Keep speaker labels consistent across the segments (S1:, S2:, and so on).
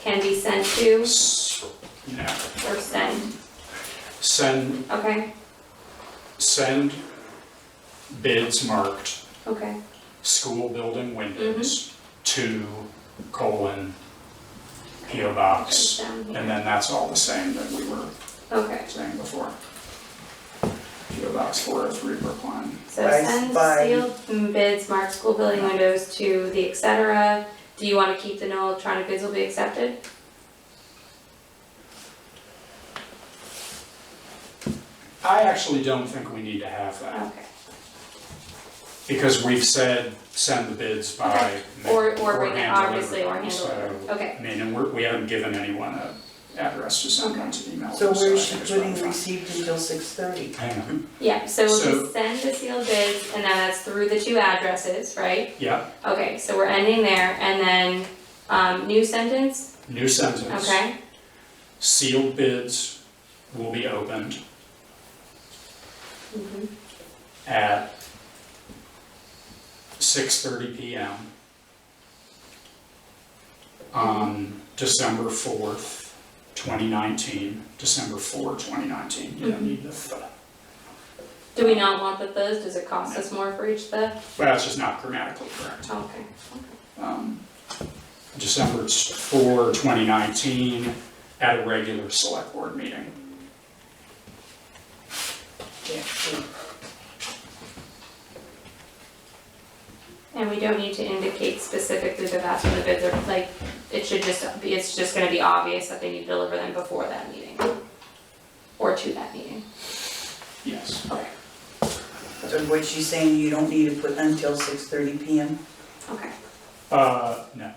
S1: can be sent to
S2: S- yeah.
S1: or send,
S2: Send,
S1: okay,
S2: send bids marked
S1: okay,
S2: school building
S1: Mm-hmm.
S2: windows to colon PO box.
S1: It's down here.
S2: And then that's all the same that we were
S1: okay.
S2: saying before. PO box four oh three Brookline.
S1: So
S3: By-
S1: send
S3: by-
S1: sealed bids, mark school building windows to the et cetera. Do you wanna keep the no electronic bids will be accepted?
S2: I actually don't think we need to have that
S1: Okay,
S2: because we've said send the bids by.
S1: Okay. or, or bring it,
S2: hand
S1: obviously, or
S2: delivery.
S1: handle it,
S2: So-
S1: okay,
S2: I mean, and we're, we haven't given anyone a address to send them to email.
S3: So
S2: them, I
S3: we're
S2: think it's
S3: putting
S2: fine.
S3: received until six thirty.
S2: Hang on,
S1: yeah, so we'll
S2: So-
S1: just send the sealed bids, and now that's through the two addresses, right?
S2: yeah,
S1: Okay, so we're ending there, and then, um, new sentence,
S2: new sentence.
S1: okay,
S2: Sealed bids will be opened
S1: Mhm.
S2: at six thirty PM on December fourth, twenty nineteen, December 4, 2019. You don't need the, th-
S1: Do we not want the those, does it cost us more for each the,
S2: well, it's just not grammatically correct.
S1: okay,
S2: um, December 4, 2019, at a regular select board meeting.
S1: and we don't need to indicate specifically that that's when the bids are, like, it should just be, it's just gonna be obvious that they need to deliver them before that meeting. Or to that meeting,
S2: Yes.
S1: okay,
S3: So what she's saying, you don't need to put until six thirty PM?
S1: okay,
S2: Uh, no,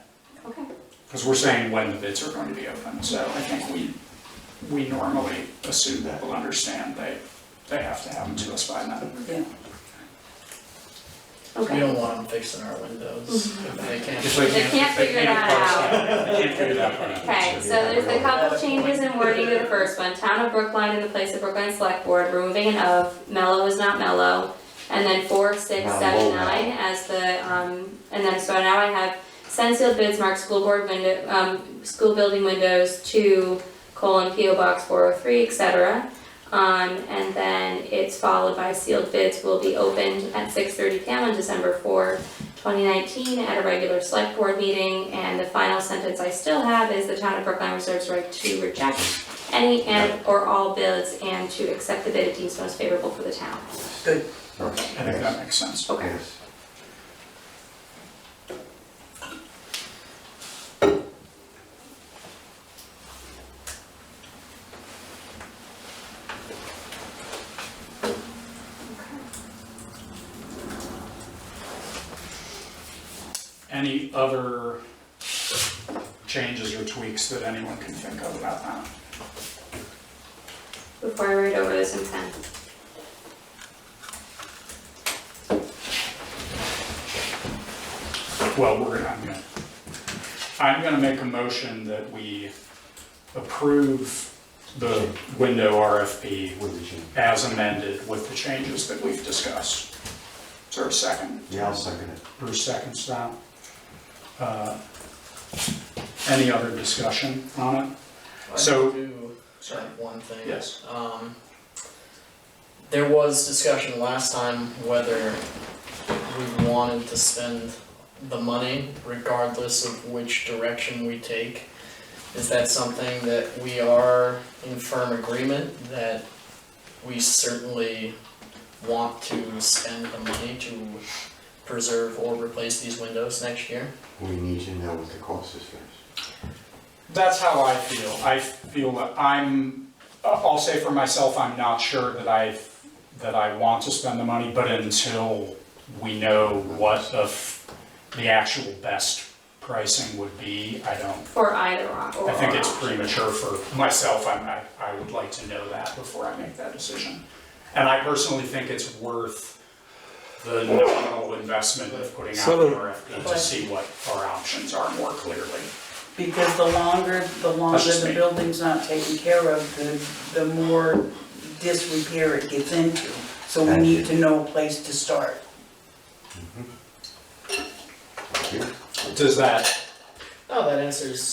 S1: okay,
S2: because we're saying when the bids are going to be open, so I think we, we normally assume that we'll understand they, they have to have them to us by then.
S3: Yeah.
S1: okay.
S4: We don't want them fixing our windows if they can't.
S2: If they
S1: They can't figure that
S2: out. They can't figure that part out.
S1: Okay, so there's a couple changes in wording to the first one, town of Brookline in the place of Brookline Select Board, removing an of, mellow is not mellow. And then four, six, seven, nine as the, um, and then, so now I have send sealed bids marked school board window, um, school building windows to colon P O box four oh three, et cetera. Um, and then it's followed by sealed bids will be opened at six thirty P M on December fourth. 2019 at a regular select board meeting, and the final sentence I still have is the town of Brookline reserves right to reject any and or all bids and to accept the bid it deems most favorable for the town.
S3: Good.
S2: I think that makes sense.
S1: Okay.
S2: Any other changes or tweaks that anyone can think of about that?
S1: Before I read over this in pen.
S2: Well, we're gonna, I'm gonna, I'm gonna make a motion that we approve the window RFP
S5: What did you?
S2: as amended with the changes that we've discussed. Is there a second?
S5: Yeah, I'll second it.
S2: Bruce seconds that. Uh, Any other discussion on it?
S4: I
S2: So-
S4: do have one thing.
S2: Yes.
S4: Um, there was discussion last time whether we wanted to spend the money regardless of which direction we take. Is that something that we are in firm agreement that we certainly want to spend the money to preserve or replace these windows next year?
S5: We need to know what the cost is first.
S2: That's how I feel. I feel that I'm, uh, I'll say for myself, I'm not sure that I, that I want to spend the money, but until we know what the, f- the actual best pricing would be, I don't,
S1: For either op- or
S2: I think it's
S1: option.
S2: premature for myself, I'm, I, I would like to know that before I make that decision. And I personally think it's worth the nominal investment of putting out an RFP to see what our options are more clearly.
S3: Because the longer, the
S2: That's
S3: longer
S2: just
S3: the
S2: me.
S3: building's not taken care of, the, the more disrepair it gets into. So we
S5: Thank
S3: need
S5: you.
S3: to know a place to start.
S5: Thank you.
S2: Does that
S4: Oh, that answers